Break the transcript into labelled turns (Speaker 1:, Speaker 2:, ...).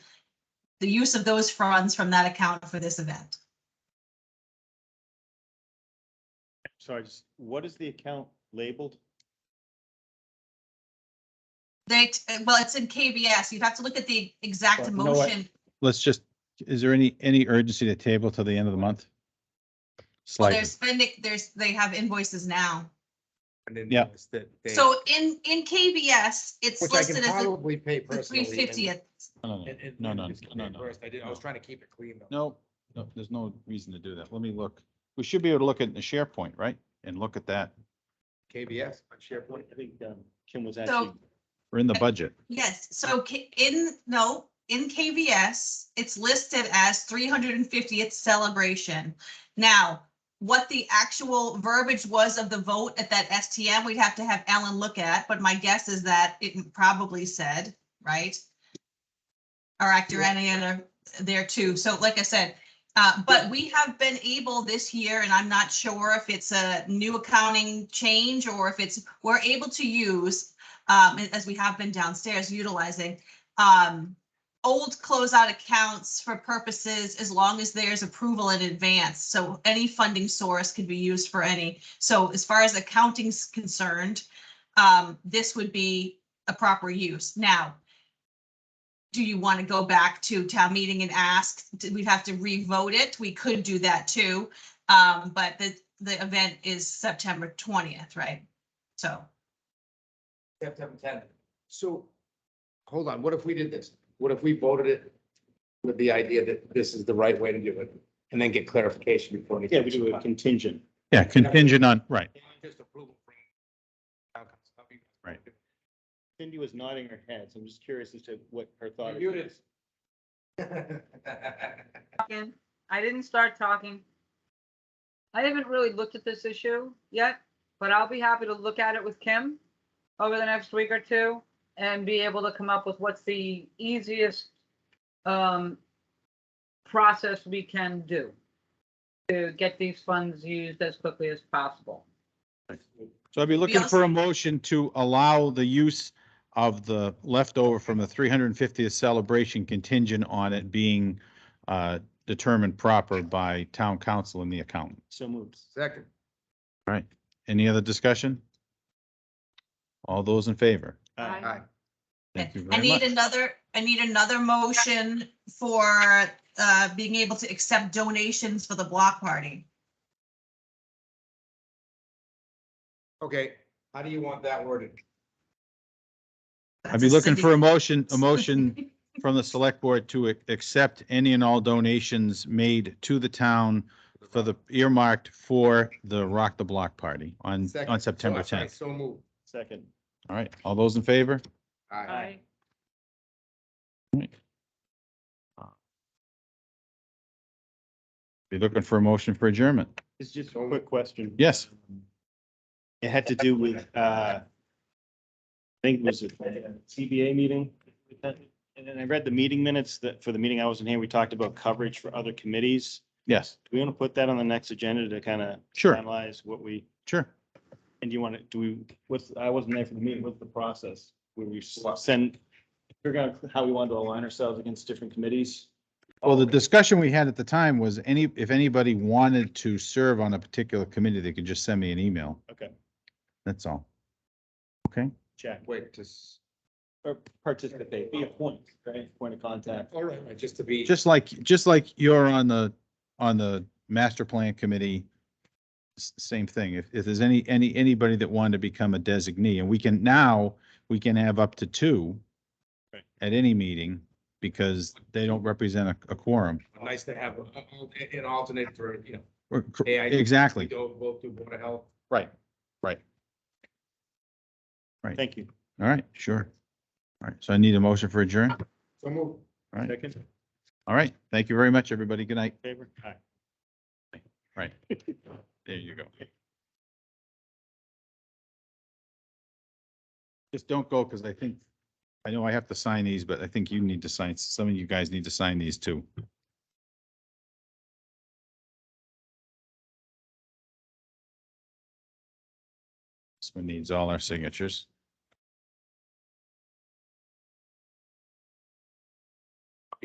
Speaker 1: the use of those funds from that account for this event.
Speaker 2: Sorry, just, what is the account labeled?
Speaker 1: They, t- well, it's in KBS. You'd have to look at the exact
Speaker 2: But you know what?
Speaker 1: motion.
Speaker 3: let's just, is there any, any urgency to table till the end of the month?
Speaker 1: Well,
Speaker 3: Slightly,
Speaker 1: They're spending, there's, they have invoices now.
Speaker 4: And then
Speaker 3: Yeah.
Speaker 4: notice that they-
Speaker 1: So in, in KBS, it's
Speaker 4: Which I
Speaker 1: listed
Speaker 4: can
Speaker 1: as the
Speaker 4: probably pay
Speaker 1: three
Speaker 4: personally. and-
Speaker 1: fiftieth.
Speaker 3: no,
Speaker 4: and- and-
Speaker 3: no,
Speaker 4: and
Speaker 3: no,
Speaker 4: just get
Speaker 3: no, no.
Speaker 4: reimbursed. I did, I was
Speaker 3: no.
Speaker 4: trying to keep it clean though.
Speaker 3: no, no, there's no reason to do that. Let me look. We should be able to look at the SharePoint, right? And look at that.
Speaker 4: KBS on SharePoint.
Speaker 2: I think um, Kim was actually,
Speaker 3: We're in the budget.
Speaker 1: Yes, so K- in, no, in KVS, it's listed as three hundred and fiftieth celebration. Now, what the actual verbiage was of the vote at that STM, we'd have to have Ellen look at, but my guess is that it probably said, right? Or actor any other there too. So like I said, uh, but we have been able this year, and I'm not sure if it's a new accounting change or if it's, we're able to use um, and as we have been downstairs utilizing, um, old closeout accounts for purposes as long as there's approval in advance. So any funding source could be used for any. So as far as accounting's concerned, um, this would be a proper use. Now, do you want to go back to town meeting and ask? Do we have to revote it? We could do that too. Um, but the, the event is September twentieth, right? So.
Speaker 4: September tenth. So, hold on, what if we did this? What if we voted it with the idea that this is the right way to do it? And then get clarification before. any-
Speaker 2: yeah, we do a contingent.
Speaker 3: Yeah, contingent on, right.
Speaker 4: Just approval from-
Speaker 3: Right.
Speaker 2: Cindy was nodding her head, so I'm just curious as to what her thought
Speaker 4: You're
Speaker 2: is.
Speaker 4: muted.
Speaker 5: talking. I didn't start talking. I haven't really looked at this issue yet, but I'll be happy to look at it with Kim over the next week or two and be able to come up with what's the easiest um, process we can do to get these funds used as quickly as possible.
Speaker 3: So I'd be looking
Speaker 1: also-
Speaker 3: for a motion to allow the use of the leftover from the three hundred and fiftieth celebration contingent on it being uh, determined proper by town council and the accountant.
Speaker 2: So moved.
Speaker 4: Second.
Speaker 3: All right. Any other discussion? All those in favor?
Speaker 2: Aye.
Speaker 4: Aye.
Speaker 3: Thank you
Speaker 1: I
Speaker 3: very
Speaker 1: need
Speaker 3: much.
Speaker 1: another, I need another motion for uh, being able to accept donations for the block party.
Speaker 4: Okay, how do you want that worded?
Speaker 3: I'd be looking for a motion, a motion from the select board to ac- accept any and all donations made to the town for the earmarked for the Rock the Block party on,
Speaker 4: Second.
Speaker 3: on September
Speaker 4: Oh, sorry,
Speaker 3: tenth.
Speaker 4: So moved.
Speaker 2: Second.
Speaker 3: All right, all those in favor?
Speaker 4: Aye.
Speaker 3: Be looking for a motion for adjournment.
Speaker 2: It's just a quick question.
Speaker 3: Yes.
Speaker 2: It had to do with, uh, I think it was a CBA meeting. And then I read the meeting minutes that, for the meeting I was in here, we talked about coverage for other committees.
Speaker 3: Yes,
Speaker 2: Do we want to put that on the next agenda to kind of
Speaker 3: sure,
Speaker 2: analyze what we,
Speaker 3: sure.
Speaker 2: and do you want to, do we, what's, I wasn't there for the meeting, what's the process? Where we s- send, figure out how we want to align ourselves against different committees?
Speaker 3: Well, the discussion we had at the time was any, if anybody wanted to serve on a particular committee, they could just send me an email.
Speaker 2: Okay.
Speaker 3: That's all.
Speaker 2: Check,
Speaker 4: Wait, just,
Speaker 2: or participate, be a point, right, point of contact.
Speaker 4: all right, just to be.
Speaker 3: Just like, just like you're on the, on the master plan committee. s- Same thing. If, if there's any, any, anybody that wanted to become a designee and we can now, we can have up to two
Speaker 2: Right.
Speaker 3: at any meeting because they don't represent a, a quorum.
Speaker 4: Nice to have a- a- an alternate for, you know,
Speaker 3: Or- cor-
Speaker 4: Yeah, I- we
Speaker 3: Exactly.
Speaker 4: go both do Board of Health.
Speaker 3: Right.
Speaker 2: Thank you.
Speaker 3: All right, sure. All right, so I need a motion for adjourn.
Speaker 4: So moved.
Speaker 3: Right.
Speaker 2: Second,
Speaker 3: All right, thank you very much, everybody. Good night.
Speaker 2: favor? Aye.
Speaker 3: Right. There you go. Just don't go, because I think, I know I have to sign these, but I think you need to sign, some of you guys need to sign these too. This one needs all our signatures.